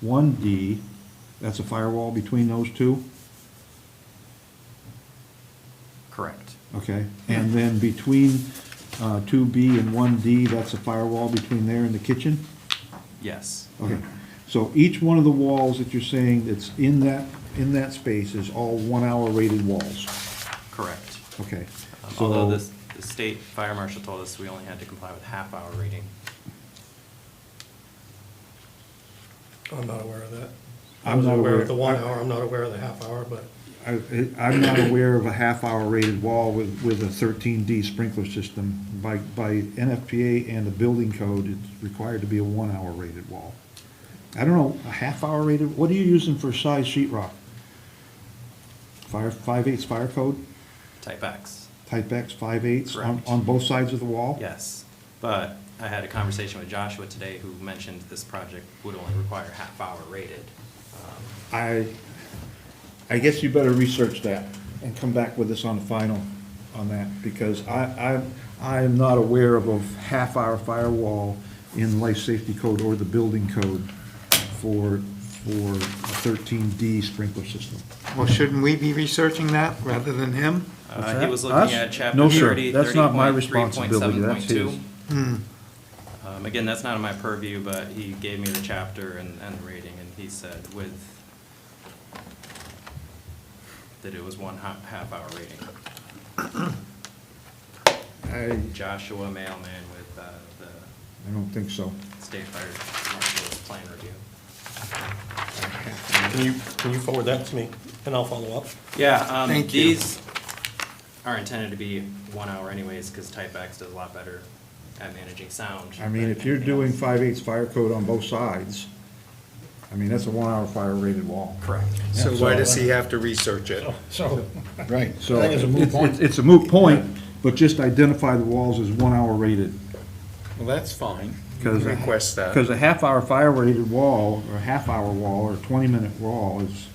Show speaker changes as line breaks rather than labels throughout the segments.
one D, that's a firewall between those two,
Correct.
okay? And then between, uh, two B and one D, that's a firewall between there and the kitchen?
Yes.
Okay, so each one of the walls that you're saying that's in that, in that space is all one-hour rated walls?
Correct.
Okay.
Um,
so-
Although this, the state fire marshal told us we only had to comply with half-hour reading.
I'm not aware of that.
I'm
was
not aware-
of the one hour, I'm not aware of the half hour, but
I, I'm not aware of a half-hour rated wall with, with a thirteen D sprinkler system. By, by NFPA and the building code, it's required to be a one-hour rated wall. I don't know, a half-hour rated, what are you using for size sheet rock? Fire, five-eighths fire code,
Type X.
type X five-eighths on,
Correct.
on both sides of the wall?
Yes. But I had a conversation with Joshua today who mentioned this project would only require half-hour rated. Um,
I, I guess you better research that and come back with us on the final on that, because I, I, I am not aware of a half-hour firewall in life safety code or the building code for, for a thirteen D sprinkler system.
Well, shouldn't we be researching that rather than him?
Uh, he was
Us?
looking at
No,
chapter
sir.
thirty,
That's not my
thirty point, three point
responsibility.
seven
That's
point two.
his.
Um, again, that's not in my purview, but he gave me the chapter and, and the rating, and he said with that it was one half, half hour rating.
I,
Joshua Mailman with, uh, the
I don't think so.
State Fire Marshal's plan review.
can you, can you forward that to me and I'll follow up?
Yeah, um,
Thank you.
these are intended to be one hour anyways, cause Type X does a lot better at managing sound.
I mean,
than
if you're
anything
doing
else.
five-eighths fire code on both sides, I mean, that's a one-hour fire rated wall.
Correct.
So uh, why does he have to research it?
So,
Right. So,
I think it's a moot
it's,
point.
it's- it's a moot point, but just identify the walls as one-hour rated.
Well, that's fine. You
Because
can Request
Because
that.
a half-hour fire-rated wall, or a half-hour wall, or a twenty-minute wall is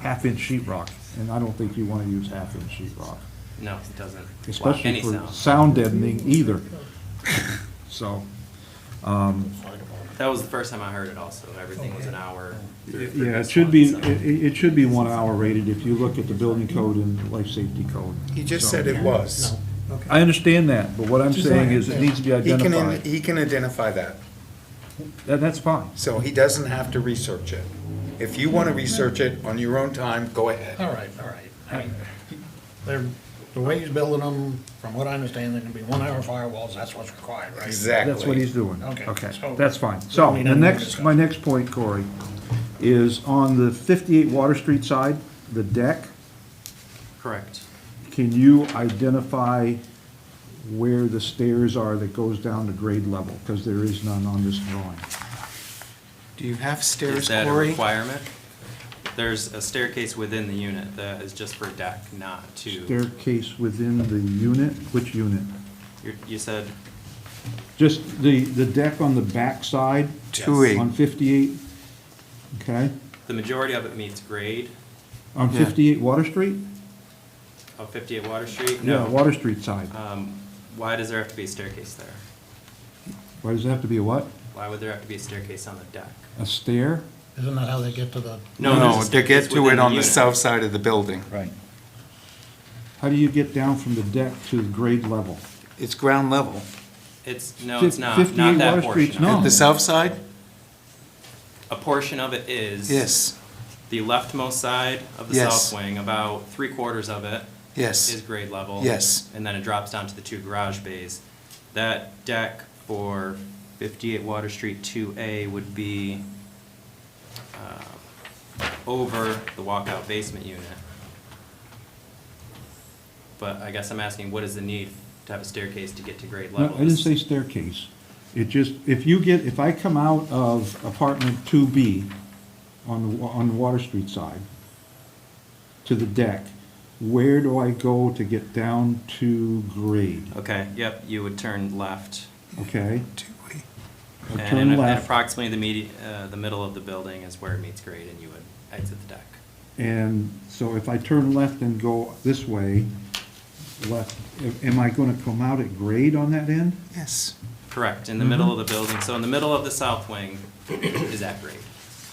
half-inch sheet rock, and I don't think you wanna use half-inch sheet rock,
No, it doesn't block
especially
any
for
sound.
sound deadening either. So,
That was the first time I heard it also. Everything was an hour. through- through
yeah, it
this
should
one,
be,
so-
it, it it should be one-hour rated if you look at the building code and life safety code.
He just
So-
said it was.
I understand that, but what I'm saying is it needs to be
He can, in-
identified,
he can identify that,
That- that's fine.
so he doesn't have to research it. If you want to research it on your own time, go ahead.
All right, all right. I mean, They're, the way he's building them, from what I understand, they're gonna be one-hour firewalls, that's what's required, right?
Exactly.
That's what he's doing.
Okay,
Okay,
so-
that's fine. So,
We need
the
any more
next,
discussion.
my next point, Corey, is on the fifty-eight Water Street side, the deck,
Correct.
can you identify where the stairs are that goes down to grade level? Because there is none on this drawing.
Do you have
Is
stairs,
that a
Corey?
requirement? There's a staircase within the unit that is just for deck, not to,
Staircase within the unit, which unit?
you- you said,
Just the, the deck on the back side
Two eight.
on fifty-eight, okay?
the majority of it meets grade
On
Yeah.
fifty-eight Water Street?
of 58 Oh, Water Street?
Yeah,
No.
Water Street side.
Um, Why does there have to be a staircase there?
Why does it have to be a what?
Why would there have to be a staircase on the deck?
A stair?
Isn't that how they get to the,
No,
there's a
to get
staircase
to
within
it on the
unit.
south side of the building.
Right. How do you get down from the deck to the grade level?
It's ground level.
It's, no, it's
Fif-
not,
58
not
Water
that
Street's
portion.
not.
of
At
it.
the south side?
A portion of it is.
Yes,
The leftmost side of the
Yes.
south wing, about three quarters of it, is
yes.
grade level.
Yes.
And then it drops down to the two garage bays. That deck for fifty-eight Water Street two A would be uh, over the walkout basement unit. But I guess I'm asking, what is the need to have a staircase to get to grade
No,
level?
I didn't say staircase. It just, if you get, if I come out of apartment two B on, the wa- on the Water Street side to the deck, where do I go to get down to grade?
Okay, yep, you would turn left.
Okay? I
and
turn
in- and
left.
Approximately the medi, uh, the middle of the building is where it meets grade and you would exit the deck.
And so if I turn left and go this way, left, am I gonna come out at grade on that end?
Yes.
Correct, in the middle of the building. So in the middle of the south wing is at grade.